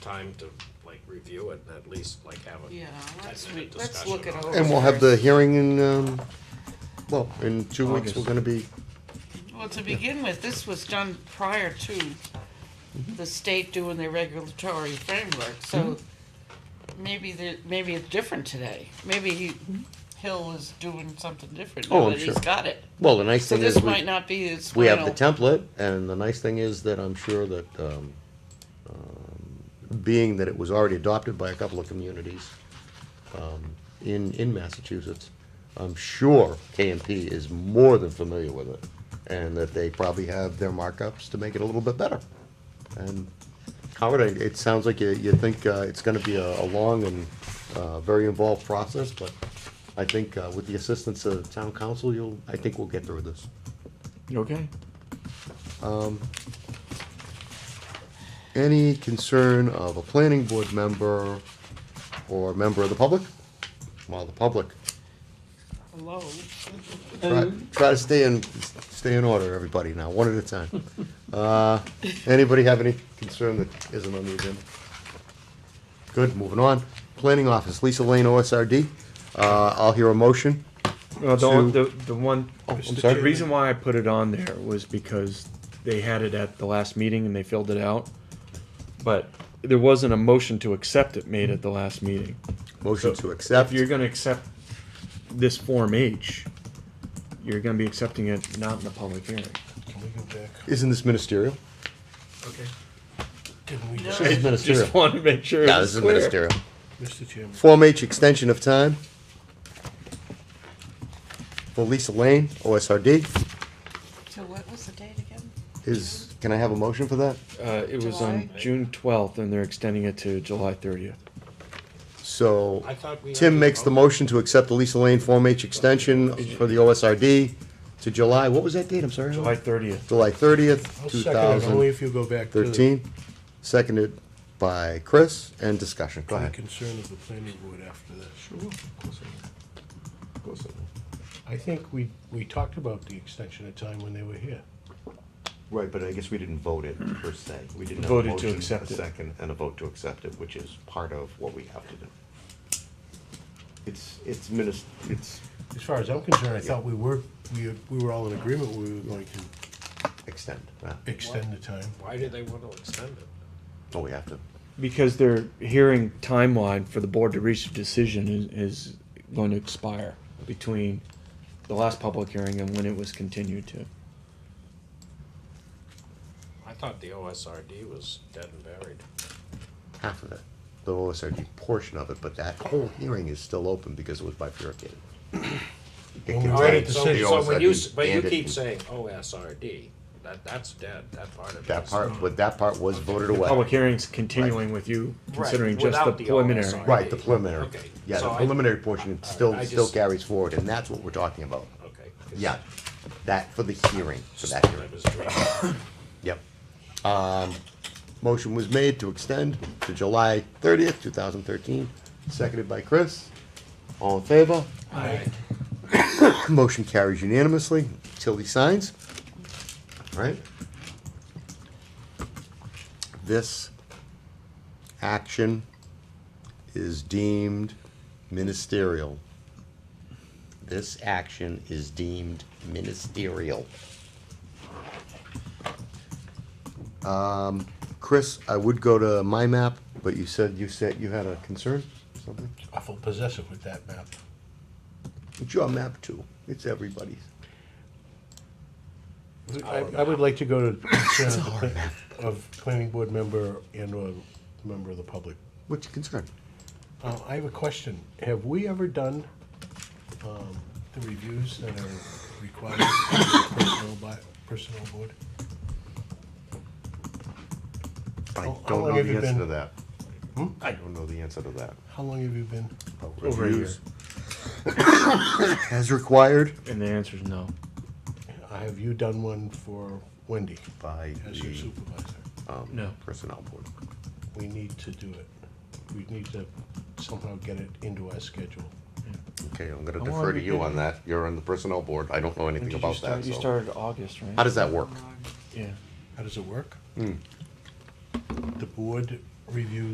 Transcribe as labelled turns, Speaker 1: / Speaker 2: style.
Speaker 1: time to like review it and at least like have a
Speaker 2: Yeah, let's, re-
Speaker 1: ten-minute
Speaker 2: let's
Speaker 1: discussion.
Speaker 2: look it
Speaker 1: on
Speaker 2: over.
Speaker 1: it.
Speaker 3: And we'll have the hearing in, um, well, in two weeks, we're
Speaker 4: August.
Speaker 3: gonna be,
Speaker 2: Well, to begin with, this was done prior to
Speaker 3: Mm-hmm.
Speaker 2: the state doing their regulatory framework, so
Speaker 3: Mm-hmm.
Speaker 2: maybe the, maybe it's different today. Maybe he, Hill is doing something different
Speaker 3: Oh,
Speaker 2: now
Speaker 3: I'm
Speaker 2: that he's
Speaker 3: sure.
Speaker 2: got it.
Speaker 3: well, the nice
Speaker 2: So
Speaker 3: thing
Speaker 2: this
Speaker 3: is,
Speaker 2: might
Speaker 3: we,
Speaker 2: not be his
Speaker 3: we have the
Speaker 2: final.
Speaker 3: template, and the nice thing is that I'm sure that, um, um, being that it was already adopted by a couple of communities, um, in, in Massachusetts, I'm sure KMP is more than familiar with it, and that they probably have their markups to make it a little bit better. And Howard, I- it sounds like you, you think uh, it's gonna be a, a long and, uh, very involved process, but I think uh, with the assistance of town council, you'll, I think we'll get through this.
Speaker 4: Okay.
Speaker 3: Um, Any concern of a planning board member or member of the public? Well, the public,
Speaker 2: Hello,
Speaker 3: try, try to stay in, stay in order, everybody now, one at a time. Uh, anybody have any concern that isn't on the agenda? Good, moving on. Planning office, Lisa Lane, OSRD. Uh, I'll hear a motion.
Speaker 4: Well, Uh, the,
Speaker 3: to-
Speaker 4: one- the, the one,
Speaker 3: Oh, I'm
Speaker 4: the
Speaker 3: sorry.
Speaker 4: reason why I put it on there was because they had it at the last meeting and they filled it out. But there wasn't a motion to accept it made at the last meeting.
Speaker 3: Motion to
Speaker 4: If
Speaker 3: accept.
Speaker 4: you're gonna accept this Form H, you're gonna be accepting it not in the public hearing.
Speaker 5: Can we go back?
Speaker 3: Isn't this ministerial?
Speaker 5: Okay. Didn't we,
Speaker 2: No.
Speaker 3: This is ministerial.
Speaker 4: Just wanted to make sure.
Speaker 3: Yeah,
Speaker 4: it was
Speaker 3: this is
Speaker 4: clear.
Speaker 3: ministerial.
Speaker 5: Mr. Chairman?
Speaker 3: Form H extension of time for Lisa Lane, OSRD.
Speaker 2: so what was the date again?
Speaker 3: Is, can I have a motion for that?
Speaker 4: Uh, it was on
Speaker 2: July.
Speaker 4: June twelfth and they're extending it to July thirtieth.
Speaker 3: So
Speaker 1: I thought we had
Speaker 3: Tim
Speaker 1: to
Speaker 3: makes the
Speaker 1: vote.
Speaker 3: motion to accept the Lisa Lane Form H extension for the OSRD to July, what was that date? I'm sorry. Howard?
Speaker 4: July thirtieth.
Speaker 3: July
Speaker 5: I'll
Speaker 3: thirtieth, two
Speaker 5: second it, only
Speaker 3: thousand
Speaker 5: if you go back to the
Speaker 3: thirteen. Seconded by Chris and discussion. Go
Speaker 5: the
Speaker 3: ahead.
Speaker 5: concern of the planning board after that. Sure. Of course I will. Of course I will. I think we, we talked about the extension of time when they were here.
Speaker 6: Right, but I guess we didn't vote it
Speaker 1: Hmm.
Speaker 6: per se. We didn't have a
Speaker 4: Voted to
Speaker 6: motion, a
Speaker 4: accept it.
Speaker 6: second, and a vote to accept it, which is part of what we have to do. It's, it's minis, it's
Speaker 5: As far as I'm concerned, I thought we were, we, we were all in agreement, we were going to
Speaker 6: extend. uh,
Speaker 5: extend the time.
Speaker 1: Why do they want to extend it?
Speaker 6: Oh, we have to.
Speaker 4: Because their hearing timeline for the board to reach a decision is, is going to expire between the last public hearing and when it was continued to.
Speaker 1: I thought the OSRD was dead and buried.
Speaker 3: Half of it, the OSRD portion of it, but that whole hearing is still open because it was bifurcated. It
Speaker 5: Well, we
Speaker 1: All
Speaker 5: Right,
Speaker 1: right,
Speaker 3: contains
Speaker 5: it's
Speaker 1: so,
Speaker 5: the
Speaker 1: so when you,
Speaker 3: OSRD
Speaker 1: s- but you
Speaker 3: and it-
Speaker 1: keep saying OSRD, that, that's dead, that part of it.
Speaker 3: That
Speaker 1: is-
Speaker 3: part, but that part was voted
Speaker 4: Public
Speaker 3: away.
Speaker 4: hearings continuing with you, considering
Speaker 1: Right,
Speaker 4: just the
Speaker 1: without the
Speaker 4: preliminary.
Speaker 1: OSRD.
Speaker 3: Right, the preliminary.
Speaker 1: Okay,
Speaker 3: Yeah,
Speaker 1: so
Speaker 3: the
Speaker 1: I-
Speaker 3: preliminary portion still,
Speaker 1: I
Speaker 3: still
Speaker 1: just-
Speaker 3: carries forward, and that's what we're talking about.
Speaker 1: Okay.
Speaker 3: Yeah, that, for the hearing, for
Speaker 1: Just
Speaker 3: that hearing.
Speaker 1: that was great.
Speaker 3: Yep. Um, Motion was made to extend to July thirtieth, two thousand thirteen, seconded by Chris. All in favor? Motion carries unanimously. Tilly signs. All right. This action is deemed ministerial. This action is deemed ministerial. Um, Chris, I would go to my map, but you said you said you had a concern, something?
Speaker 5: Awful possessive with that map.
Speaker 3: It's your map too. It's everybody's.
Speaker 5: I, I would like to go to concern of the pla- of planning board member and or member of the public.
Speaker 3: What's your concern?
Speaker 5: Uh, I have a question. Have we ever done um, the reviews that are required for the personnel by, personnel board?
Speaker 3: I
Speaker 5: How- how
Speaker 3: don't
Speaker 5: long
Speaker 3: know
Speaker 5: have you
Speaker 3: the answer to
Speaker 5: been-
Speaker 3: that.
Speaker 5: Hmm?
Speaker 3: I don't know the answer to that.
Speaker 5: How long have you been?
Speaker 4: Over a
Speaker 3: Reviews. As required
Speaker 4: And the answer is no.
Speaker 5: Uh, Have you done one for Wendy
Speaker 3: by
Speaker 5: as
Speaker 3: the
Speaker 5: your
Speaker 3: um,
Speaker 5: supervisor?
Speaker 4: No.
Speaker 3: personnel board.
Speaker 5: We need to do it. We need to somehow get it into our schedule.
Speaker 3: Okay, I'm gonna
Speaker 4: How long
Speaker 3: defer
Speaker 4: have
Speaker 3: to
Speaker 4: you
Speaker 3: you
Speaker 4: been-
Speaker 3: on that. You're on the personnel board. I don't know
Speaker 4: When
Speaker 3: anything
Speaker 4: did you
Speaker 3: about
Speaker 4: start?
Speaker 3: that,
Speaker 4: You
Speaker 3: so.
Speaker 4: started August, right?
Speaker 3: How does that work?
Speaker 4: Yeah.
Speaker 5: How does it work? The board reviews